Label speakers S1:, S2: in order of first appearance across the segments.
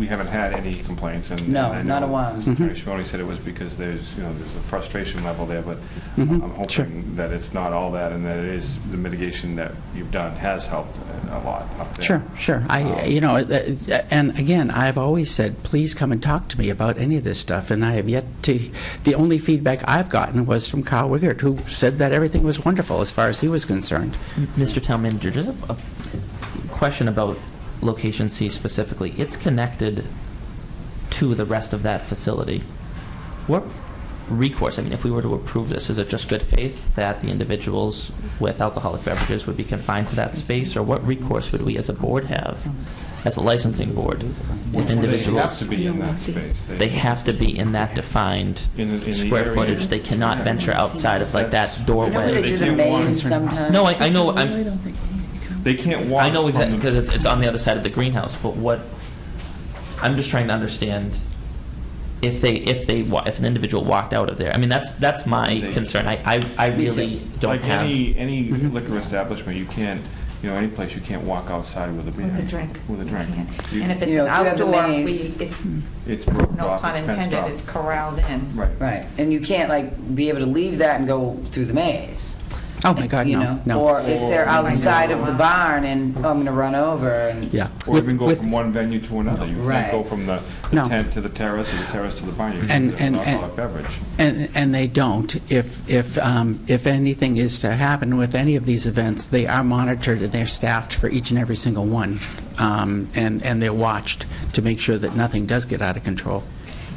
S1: we haven't had any complaints and.
S2: No,
S1: and I
S2: not a
S1: know
S2: one.
S3: Mm-hmm.
S1: Attorney Shimoni said it was because there's, you know, there's a frustration level there, but I'm
S3: Mm-hmm. sure.
S1: hoping that it's not all that and that it is, the mitigation that you've done has helped a lot up there.
S3: Sure, sure. I, you know, it- it- and again, I've always said, please come and talk to me about any of this stuff, and I have yet to, the only feedback I've gotten was from Kyle Wiggert, who said that everything was wonderful as far as he was concerned.
S4: Mr. Town Manager, just a, a question about location C specifically. It's connected to the rest of that facility. What recourse, I mean, if we were to approve this, is it just good faith that the individuals with alcoholic beverages would be confined to that space? Or what recourse would we as a board have, as a licensing board,
S1: Well,
S4: with
S1: They have
S4: individuals?
S1: to be in that space.
S4: They have to be in that defined
S1: In the- in the
S4: square
S1: area.
S4: footage. They cannot venture outside of like that
S2: You know where they
S4: doorway.
S2: do the
S1: They do one.
S2: maze sometimes?
S4: No, I, I know, I'm,
S1: They can't walk.
S4: I know
S1: from
S4: exactly
S1: the-
S4: because it's, it's on the other side of the greenhouse. But what I'm just trying to understand if they if they wa- if an individual walked out of there. I mean that's that's my
S1: They-
S4: concern. I I, I
S2: Me
S4: really
S2: too.
S4: don't
S1: Like
S4: have.
S1: any, any
S3: Mm-hmm.
S1: liquor establishment, you can't, you know, any place, you can't walk outside with a beer.
S5: With a drink.
S1: With a drink.
S5: You can't.
S1: You-
S5: And if it's
S2: You know,
S5: an
S2: if you have the
S5: outdoor, we,
S2: maze- hmm.
S5: it's,
S1: It's broken
S5: no
S1: off,
S5: pun
S1: it's fenced
S5: intended,
S1: off.
S5: it's corralled in.
S1: Right.
S2: Right, and you can't like be able to leave that and go through the maze.
S3: Oh, my God,
S2: you
S3: no,
S2: know?
S3: no.
S2: Or if they're outside of the barn and, oh, I'm going to run over and.
S3: Yeah.
S1: Or
S3: With-
S1: even go
S3: with-
S1: from one venue to another. You
S2: Right.
S1: can't go from the the
S3: No.
S1: tent to the terrace, or the terrace to the barn. You
S3: And-
S1: can't
S3: and-
S1: have
S3: and-
S1: alcoholic beverage.
S3: And, and they don't. If, if, um, if anything is to happen with any of these events, they are monitored and they're staffed for each and every single one. Um, and, and they're watched to make sure that nothing does get out of control.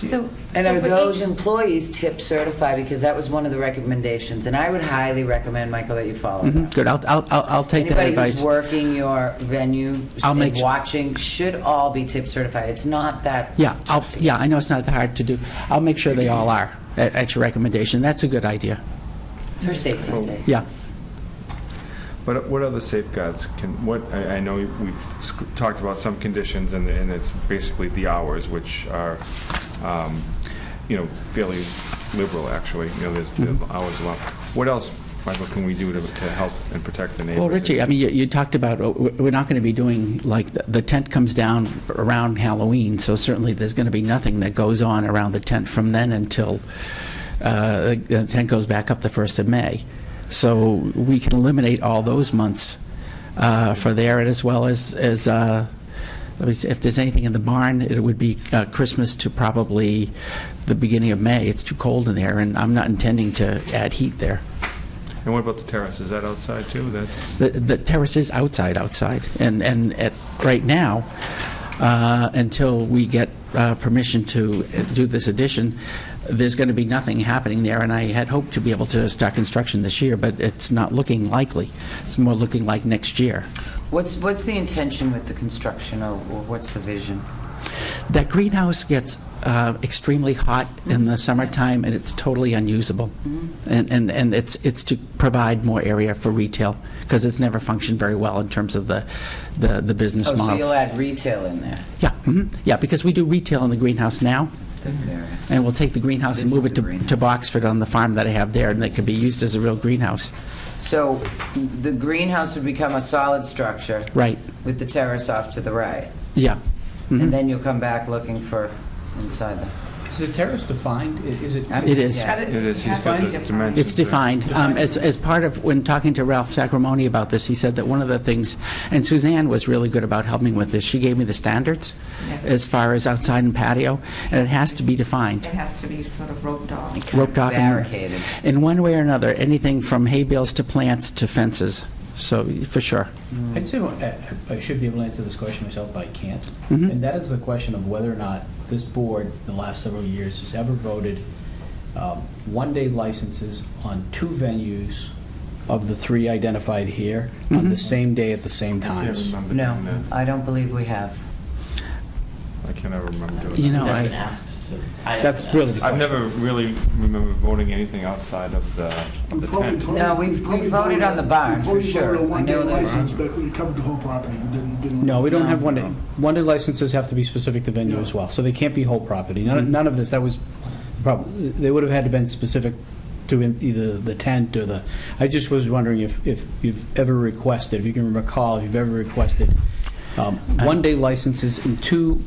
S5: So,
S2: And
S5: so
S2: are
S5: for
S2: those
S5: each-
S2: employees tip certified? Because that was one of the recommendations, and I would highly recommend, Michael, that you follow
S3: Mhm,
S2: that.
S3: Good, I'll, I'll, I'll I'll take that
S2: Anybody
S3: advice.
S2: who's working your venue
S3: I'll make
S2: and
S3: su-
S2: watching should all be tip certified. It's not that.
S3: Yeah, I'll, yeah, I know it's not that hard to do. I'll make sure they all are at, at your recommendation. That's a good idea.
S2: For safety's sake.
S3: Yeah.
S1: But what other safeguards can, what, I, I know we've sc- talked about some conditions and, and it's basically the hours, which are, um, you know, fairly liberal, actually. You know, there's the
S3: Mm-hmm.
S1: hours allowed. What else, Michael, can we do to, to help and protect the neighbors?
S3: Well, Richie, I mean, you, you talked about, uh, w- we're not going to be doing, like, the- the tent comes down around Halloween, so certainly there's going to be nothing that goes on around the tent from then until uh, the tent goes back up the 1st of May. So we can eliminate all those months uh, for there, and as well as, as, uh, let me see, if there's anything in the barn, it would be uh, Christmas to probably the beginning of May. It's too cold in there, and I'm not intending to add heat there.
S1: And what about the terrace? Is that outside too? That's,
S3: The- The terrace is outside, outside, and, and at, right now, uh, until we get uh, permission to do this addition, there's going to be nothing happening there, and I had hoped to be able to start construction this year, but it's not looking likely. It's more looking like next year.
S2: What's, what's the intention with the construction, or or what's the vision?
S3: That greenhouse gets uh, extremely hot in the summertime, and it's totally unusable.
S2: Mm-hmm.
S3: And, and, and it's, it's to provide more area for retail, because it's never functioned very well in terms of the, the the business
S2: Oh,
S3: model.
S2: so you'll add retail in there?
S3: Yeah, mhm. yeah, because we do retail in the greenhouse now,
S2: It's this area.
S3: and we'll take the greenhouse and
S2: This
S3: move
S2: is
S3: it
S2: the
S3: to
S2: greenhouse.
S3: to Boxford on the farm that I have there, and it can be used as a real greenhouse.
S2: So the greenhouse would become a solid structure
S3: Right,
S2: with the terrace off to the right,
S3: yeah. Mhm.
S2: and then you'll come back looking for inside the...
S6: Is the terrace defined? I- Is it?
S2: I'm-
S3: It is.
S2: yeah.
S5: It
S1: it is, he's
S5: has
S1: got
S5: to
S1: the
S5: be defined.
S1: dimensions.
S3: It's defined. Um, As, as part of, when talking to Ralph Sacramone about this, he said that one of the things, and Suzanne was really good about helping with this, she gave me the standards
S5: Yeah.
S3: as far as outside and patio, and it has to be defined.
S5: It has to be sort of roped off.
S3: roped off. and-
S2: Barricaded.
S3: In one way or another, anything from hay bales to plants to fences, so, for sure.
S6: I'd say, uh, I should be able to answer this question myself, but I can't.
S3: Mhm.
S6: And that is the question of whether or not this board, the last several years, has ever voted um, one-day licenses on two venues of the three identified here on the same day at the same
S1: I can't
S6: times.
S1: remember
S2: No,
S1: doing that.
S2: I don't believe we have.
S1: I can't ever remember doing that.
S3: You know,
S4: I've
S3: I-
S4: been asked to- I have
S6: That's
S4: been asked.
S6: really the question.
S1: I've never really remember voting anything outside of the, of the tent.
S2: No, we've- we voted on the barn, for sure.
S7: We
S2: I know
S7: voted on one-day
S2: that.
S7: license, but we covered the whole property, We didn't, didn't.
S6: No, we don't have
S2: No.
S6: one-day, one-day licenses have to be specific to venue as well, so they can't be whole property. None none of this, that was the problem. They would have had to been specific to in- either the tent or the, I just was wondering if, if you've ever requested, if you can recall, if you've ever requested um, one-day licenses in two